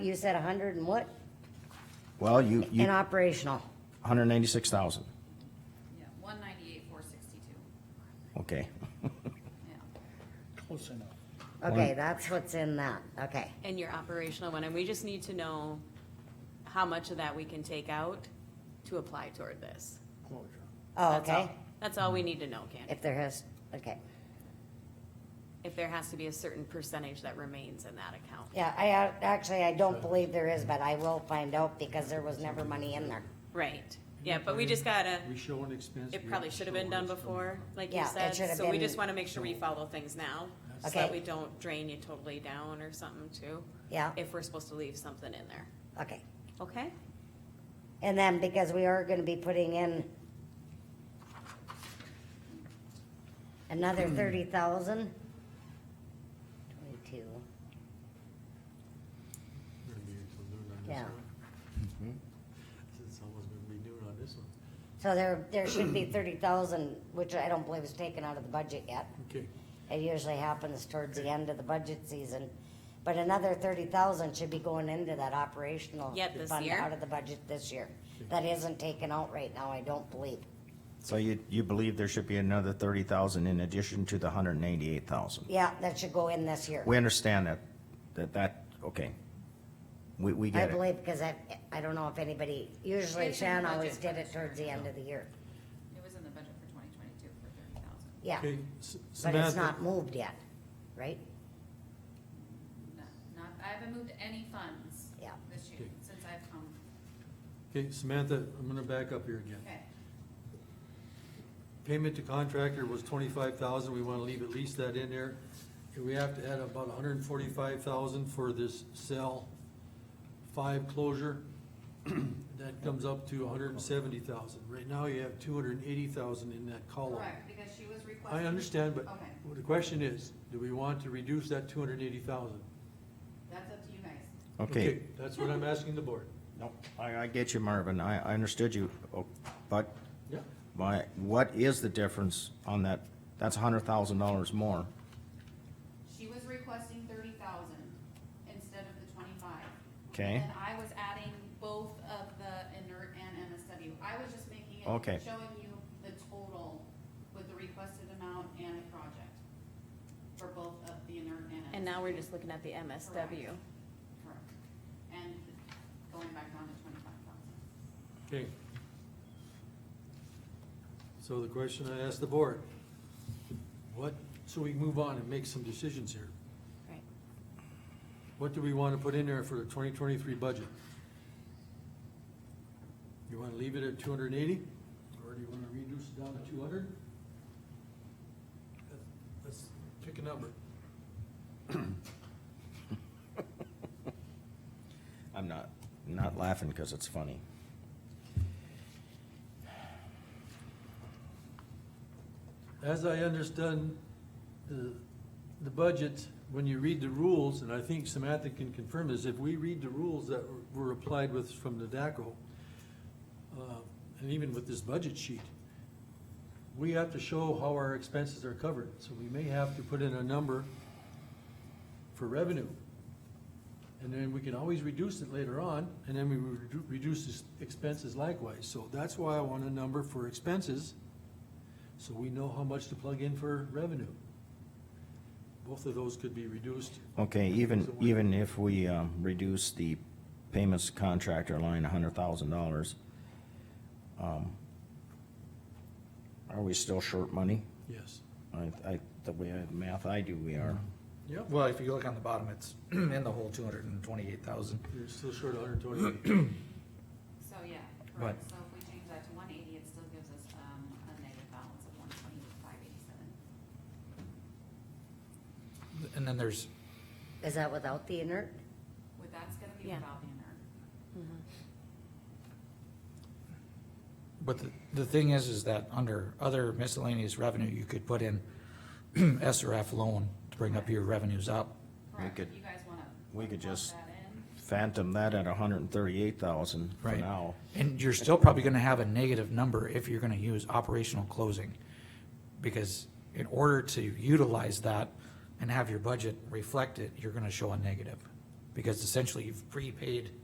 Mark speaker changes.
Speaker 1: You said a hundred and what?
Speaker 2: Well, you, you,
Speaker 1: And operational.
Speaker 2: hundred ninety-six thousand,
Speaker 3: Yeah, one ninety-eight, four sixty-two,
Speaker 2: okay.
Speaker 3: yeah.
Speaker 4: Close enough.
Speaker 1: Okay, that's what's in that, okay.
Speaker 5: And your operational one, and we just need to know how much of that we can take out to apply toward this.
Speaker 4: Closure.
Speaker 1: Oh,
Speaker 5: That's all.
Speaker 1: okay,
Speaker 5: That's all we need to know, Candy.
Speaker 1: if there has, okay.
Speaker 5: If there has to be a certain percentage that remains in that account.
Speaker 1: Yeah, I, uh, actually, I don't believe there is, but I will find out because there was never money in there.
Speaker 5: Right, yeah, but we just gotta,
Speaker 4: We show an expense.
Speaker 5: it
Speaker 4: we
Speaker 5: probably
Speaker 4: have to
Speaker 5: should have
Speaker 4: show
Speaker 5: been
Speaker 4: an
Speaker 5: done
Speaker 4: expense.
Speaker 5: before, like you
Speaker 1: Yeah, it
Speaker 5: said,
Speaker 1: should have
Speaker 5: so we
Speaker 1: been-
Speaker 5: just wanna make sure we follow things now. So that
Speaker 1: Okay.
Speaker 5: we don't drain you totally down or something too,
Speaker 1: Yeah,
Speaker 5: if we're supposed to leave something in there,
Speaker 1: okay.
Speaker 5: okay?
Speaker 1: And then because we are gonna be putting in another
Speaker 5: Hmm.
Speaker 1: thirty thousand. Twenty-two,
Speaker 4: We're gonna be until noon on this
Speaker 1: Yeah.
Speaker 4: one. It's almost Mm-hmm. gonna be noon on this one.
Speaker 1: so there, there should be thirty thousand, which I don't believe is taken out of the budget yet.
Speaker 4: Okay,
Speaker 1: It usually happens towards the end of the budget season. But another thirty thousand should be going into that operational.
Speaker 5: Yet this
Speaker 1: fund
Speaker 5: year?
Speaker 1: Out of the budget this year. That isn't taken out right now, I don't believe.
Speaker 2: So you, you believe there should be another thirty thousand in addition to the hundred ninety-eight thousand?
Speaker 1: Yeah, that should go in this year.
Speaker 2: We understand that, that, that, okay. We, we
Speaker 1: I
Speaker 2: get it.
Speaker 1: believe, because I, I don't know if anybody, usually
Speaker 3: It's in the
Speaker 1: Shan always
Speaker 3: budget.
Speaker 1: did it towards the end of the year.
Speaker 3: It was in the budget for twenty twenty-two for thirty thousand.
Speaker 1: Yeah,
Speaker 4: okay.
Speaker 1: but it's not moved yet, right?
Speaker 3: No, not, I haven't moved any funds
Speaker 1: Yeah.
Speaker 3: this year,
Speaker 4: Okay.
Speaker 3: since I've come,
Speaker 4: Okay, Samantha, I'm gonna back up here again.
Speaker 3: okay.
Speaker 4: Payment to contractor was twenty-five thousand, we wanna leave at least that in there. And we have to add about hundred and forty-five thousand for this cell five closure. That comes up to hundred and seventy thousand. Right now, you have two hundred and eighty thousand in that column.
Speaker 3: Correct, because she was requesting.
Speaker 4: uh, I understand, but
Speaker 3: Okay,
Speaker 4: the question is, do we want to reduce that two hundred and eighty thousand?
Speaker 3: that's up to you guys.
Speaker 2: Okay.
Speaker 4: That's what I'm asking the board.
Speaker 2: No, I, I get you, Marvin. I, I understood you, Oh, but
Speaker 4: Yeah.
Speaker 2: my, what is the difference on that? That's hundred thousand dollars more.
Speaker 3: She was requesting thirty thousand instead of the twenty-five.
Speaker 2: Okay.
Speaker 3: And I was adding both of the inert and MSW. I was just making it,
Speaker 2: Okay.
Speaker 3: showing you the total with the requested amount and the project for both of the inert and MSW.
Speaker 5: And now we're just looking at the MSW.
Speaker 3: Correct. And going back down to twenty-five thousand.
Speaker 4: Okay. So the question I asked the board, what, so we can move on and make some decisions here.
Speaker 5: Right.
Speaker 4: What do we want to put in there for the twenty twenty-three budget? You want to leave it at two hundred and eighty, or do you want to reduce it down to two hundred? Let's pick a number.
Speaker 2: I'm not, not laughing because it's funny.
Speaker 4: As I understand the, the budget, when you read the rules, and I think Samantha can confirm this, if we read the rules that were were applied with from the DACO, uh, and even with this budget sheet, we have to show how our expenses are covered, so we may have to put in a number for revenue. And then we can always reduce it later on, and then we redu- reduce this expenses likewise, so that's why I want a number for expenses so we know how much to plug in for revenue. Both of those could be reduced.
Speaker 2: Okay, even, even if we, um, reduce the payments contractor line a hundred thousand dollars, um, are we still short money?
Speaker 4: Yes.
Speaker 2: I, I, the way I, math I do, we are.
Speaker 4: Yep.
Speaker 6: Well, if you look on the bottom, it's in the whole two hundred and twenty-eight thousand.
Speaker 4: You're still short hundred twenty-eight.
Speaker 3: So, yeah,
Speaker 6: Right.
Speaker 3: correct. So if we change that to one eighty, it still gives us, um, a negative balance of one twenty-five eighty-seven.
Speaker 6: And then there's,
Speaker 1: Is that without the inert?
Speaker 3: With, that's gonna be
Speaker 5: Yeah.
Speaker 3: without the inert.
Speaker 6: but the, the thing is, is that under other miscellaneous revenue, you could put in SRF loan to bring up your revenues up.
Speaker 3: Correct,
Speaker 2: could-
Speaker 3: you guys wanna.
Speaker 2: we could
Speaker 3: plug
Speaker 2: just-
Speaker 3: that in?
Speaker 2: Phantom that at hundred and thirty-eight thousand for
Speaker 6: Right.
Speaker 2: now.
Speaker 6: And you're still probably gonna have a negative number if you're gonna use operational closing. Because in order to utilize that and have your budget reflect it, you're gonna show a negative. because essentially you've prepaid